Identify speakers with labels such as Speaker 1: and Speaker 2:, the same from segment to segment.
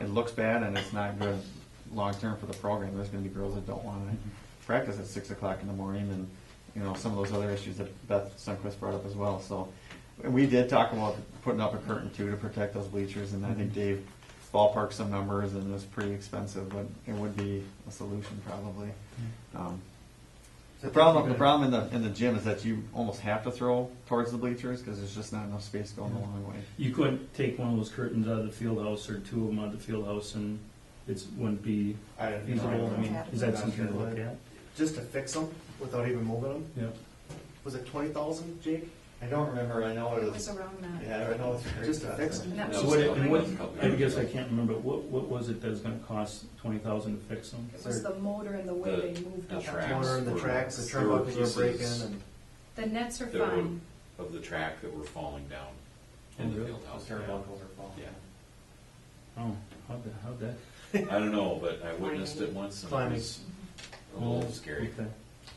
Speaker 1: it looks bad and it's not good long-term for the program. There's gonna be girls that don't wanna practice at six o'clock in the morning and, you know, some of those other issues that Beth Sunquist brought up as well, so. We did talk about putting up a curtain too to protect those bleachers and I think Dave ballparked some numbers and it was pretty expensive, but it would be a solution probably. Um, The problem, the problem in the, in the gym is that you almost have to throw towards the bleachers because there's just not enough space going the long way.
Speaker 2: You couldn't take one of those curtains out of the field house or two of them out of the field house and it wouldn't be
Speaker 3: I don't know.
Speaker 2: feasible. I mean, is that
Speaker 3: Yeah.
Speaker 2: something to look at?
Speaker 3: Just to fix them without even moving them,
Speaker 2: Yeah.
Speaker 3: was it twenty thousand, Jake?
Speaker 1: I don't remember, I know
Speaker 4: It was around that.
Speaker 1: I know
Speaker 3: Just to fix them?
Speaker 4: That
Speaker 2: So
Speaker 4: was
Speaker 2: what,
Speaker 4: the
Speaker 2: it- and what,
Speaker 4: line.
Speaker 2: I guess I can't remember, what, what was it that was gonna cost twenty thousand to fix them?
Speaker 4: It was the motor and the way they moved
Speaker 5: The
Speaker 4: up.
Speaker 5: tracks
Speaker 3: Corner and the
Speaker 5: were-
Speaker 3: tracks, the
Speaker 5: there were
Speaker 3: turnbuckles were breaking
Speaker 5: pieces
Speaker 3: and.
Speaker 4: The nets are
Speaker 5: They were-
Speaker 4: fine.
Speaker 5: Of the track that were falling down
Speaker 2: Oh,
Speaker 5: in the
Speaker 2: really?
Speaker 5: field house. Yeah.
Speaker 2: Oh, how'd that, how'd that?
Speaker 5: I don't know, but I witnessed it once and it was a
Speaker 2: Mm-hmm.
Speaker 5: little scary.
Speaker 2: Okay.
Speaker 5: Um,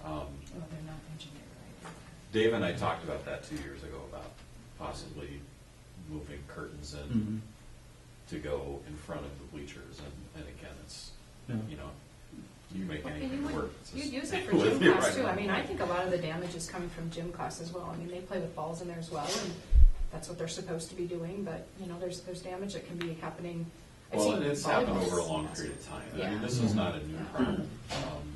Speaker 4: Mm-hmm. Well, they're not engineered
Speaker 5: Dave and I talked about that two years ago about possibly moving curtains
Speaker 2: Mhm.
Speaker 5: in to go in front of the bleachers and, and again, it's,
Speaker 2: Yeah.
Speaker 5: you know, you make
Speaker 6: And you
Speaker 5: anything
Speaker 6: would,
Speaker 5: work. It's
Speaker 6: you'd
Speaker 5: just-
Speaker 6: use it for
Speaker 5: with
Speaker 6: gym
Speaker 5: your
Speaker 6: class
Speaker 5: right
Speaker 6: too, I mean, I
Speaker 5: mind.
Speaker 6: think a lot of the damage is coming from gym class as well, I mean, they play with balls in there as well, and that's what they're supposed to be doing, but, you know, there's, there's damage that can be happening. I've
Speaker 5: Well,
Speaker 6: seen
Speaker 5: and it's happened
Speaker 6: volleyballs.
Speaker 5: over a long period of time. I
Speaker 6: Yeah.
Speaker 5: mean, this is
Speaker 2: Mhm.
Speaker 5: not a new
Speaker 6: Yeah.
Speaker 5: problem. Um,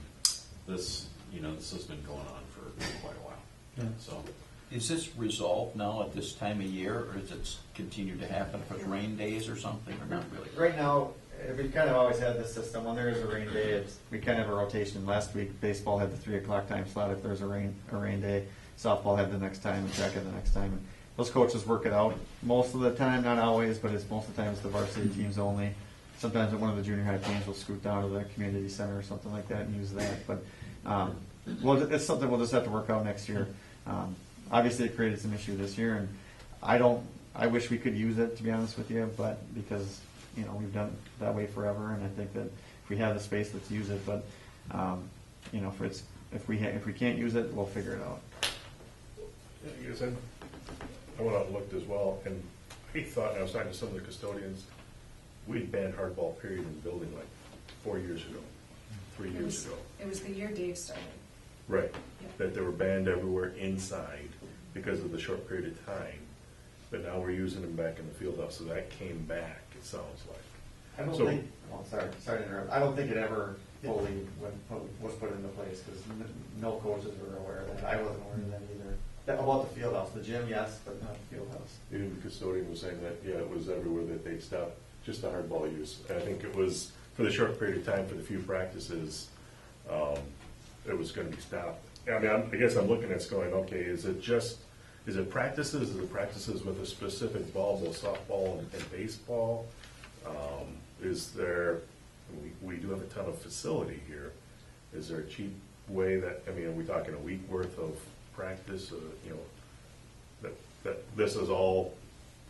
Speaker 5: This, you know, this has been going on for quite a while,
Speaker 2: Yeah.
Speaker 5: so.
Speaker 7: Is this resolved now at this time of year, or does it continue to happen with rain days or something, or not really?
Speaker 1: Right now, eh, we've kind of always had this system, when there is a rain day, it's, we kind of have a rotation. Last week, baseball had the three o'clock time slot if there's a rain, a rain day. Softball had the next time, and track had the next time. And Those coaches work it out most of the time, not always, but it's most of the time it's the varsity teams only. Sometimes one of the junior high teams will scoot down to the community center or something like that and use that, but, um, well, it's something we'll just have to work out next year. Um, Obviously, it created some issue this year, and I don't, I wish we could use it, to be honest with you, but because, you know, we've done it that way forever, and I think that if we have the space, let's use it, but, um, you know, if it's, if we, ha- if we can't use it, we'll figure it out.
Speaker 8: Yeah, you guys, I- I went out and looked as well, and I thought, and I was talking to some of the custodians, we had banned hardball period in the building like four years ago, three
Speaker 4: It
Speaker 8: years
Speaker 4: was,
Speaker 8: ago.
Speaker 4: it was the year Dave started.
Speaker 8: Right, that they were banned everywhere inside because of the short period of time, but now we're using them back in the field house, so that came back, it sounds like.
Speaker 1: I don't
Speaker 8: So-
Speaker 1: think, oh, sorry, sorry to interrupt, I don't think it ever fully went- put- was put into place, because no coaches were aware of that, I wasn't aware of that either. That- About the field house, the gym, yes, but not the field house.
Speaker 8: Even the custodian was saying that, yeah, it was everywhere that they stopped, just the hardball use. And I think it was, for the short period of time, for the few practices, um, it was gonna be stopped. I mean, I'm- I guess I'm looking at it's going, okay, is it just, is it practices, is it practices with a specific ball, both softball and- and baseball? Um, Is there, we, we do have a ton of facility here, is there a cheap way that, I mean, are we talking a week worth of practice, uh, you know, that, that this is all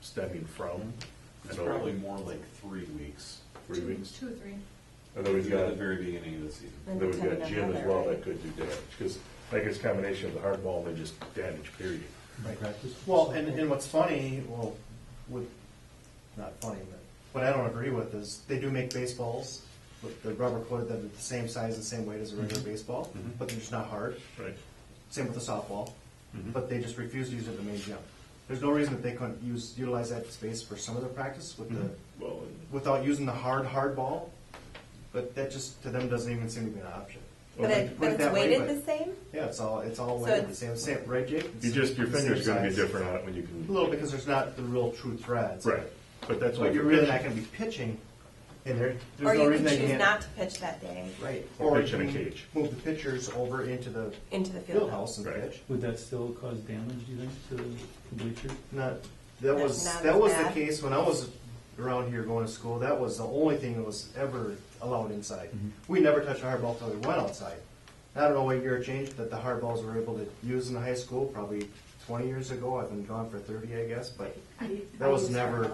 Speaker 8: stemming from?
Speaker 5: It's
Speaker 8: I know
Speaker 5: probably more like three weeks
Speaker 8: Three weeks,
Speaker 4: Two or three.
Speaker 8: and then
Speaker 5: at
Speaker 8: we've got,
Speaker 5: the
Speaker 8: then
Speaker 5: very beginning of the season.
Speaker 8: we've got Jim as well that could do damage, because I guess combination of the hardball and then just damage period.
Speaker 2: Practice?
Speaker 3: Well, and, and what's funny, well, with, not funny, but what I don't agree with is they do make baseballs, with the rubber coated, that are the same size, the same weight as a regular baseball,
Speaker 8: Mhm.
Speaker 3: but they're just not hard.
Speaker 8: Right.
Speaker 3: Same with the softball,
Speaker 8: Mhm.
Speaker 3: but they just refuse to use it in the main gym. There's no reason that they couldn't use, utilize that space for some of their practice with the,
Speaker 8: Mm-hmm. Well, and-
Speaker 3: without using the hard, hard ball, but that just, to them, doesn't even seem to be an option.
Speaker 9: But
Speaker 3: Well,
Speaker 9: it,
Speaker 3: put
Speaker 9: but
Speaker 3: it
Speaker 9: it's
Speaker 3: that way,
Speaker 9: weighted
Speaker 3: but-
Speaker 9: the same?
Speaker 3: Yeah, it's all, it's all
Speaker 9: So
Speaker 3: weighted the
Speaker 9: it's-
Speaker 3: same, same, right, Jake?
Speaker 8: you just, your
Speaker 3: It's the
Speaker 8: finger's
Speaker 3: same
Speaker 8: gonna be
Speaker 3: size.
Speaker 8: different on it when you can.
Speaker 3: A little, because there's not the real true threads.
Speaker 8: Right, but that's why.
Speaker 3: But you're really not gonna be pitching in there. There's
Speaker 9: Or
Speaker 3: no
Speaker 9: you
Speaker 3: reason
Speaker 9: could
Speaker 3: they
Speaker 9: choose
Speaker 3: can't-
Speaker 9: not to pitch that day
Speaker 3: Right.
Speaker 8: Or
Speaker 3: you
Speaker 8: pitch in a
Speaker 3: can
Speaker 8: cage.
Speaker 3: Move the pitchers over into the
Speaker 9: into the
Speaker 3: field
Speaker 9: field
Speaker 3: house
Speaker 9: house?
Speaker 3: and
Speaker 8: Right.
Speaker 3: pitch.
Speaker 2: Would that still cause damage, do you think, to the bleachers?
Speaker 3: Not, that
Speaker 9: That's
Speaker 3: was,
Speaker 9: not
Speaker 3: that
Speaker 9: as
Speaker 3: was the
Speaker 9: bad.
Speaker 3: case when I was around here going to school, that was the only thing that was ever allowed inside.
Speaker 8: Mm-hmm.
Speaker 3: We never touched a hard ball till we went outside. I don't know what year it changed, but the hard balls were able to use in the high school, probably twenty years ago, I've been gone for thirty, I guess, but That was never-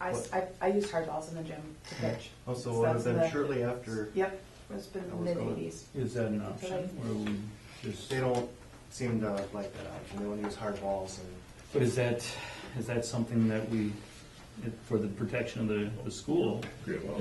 Speaker 10: I, s- I- I used hardballs in the gym to pitch.
Speaker 3: also it would have
Speaker 10: That's
Speaker 3: been
Speaker 10: the-
Speaker 3: shortly after,
Speaker 10: Yep, it's been
Speaker 3: That was
Speaker 10: mid
Speaker 3: good.
Speaker 10: eighties.
Speaker 2: Is that an option, or we just?
Speaker 3: they don't seem to like that option, they wanna use hard balls and,
Speaker 2: But is that, is that something that we, for the protection of the, the school,
Speaker 8: Great, well.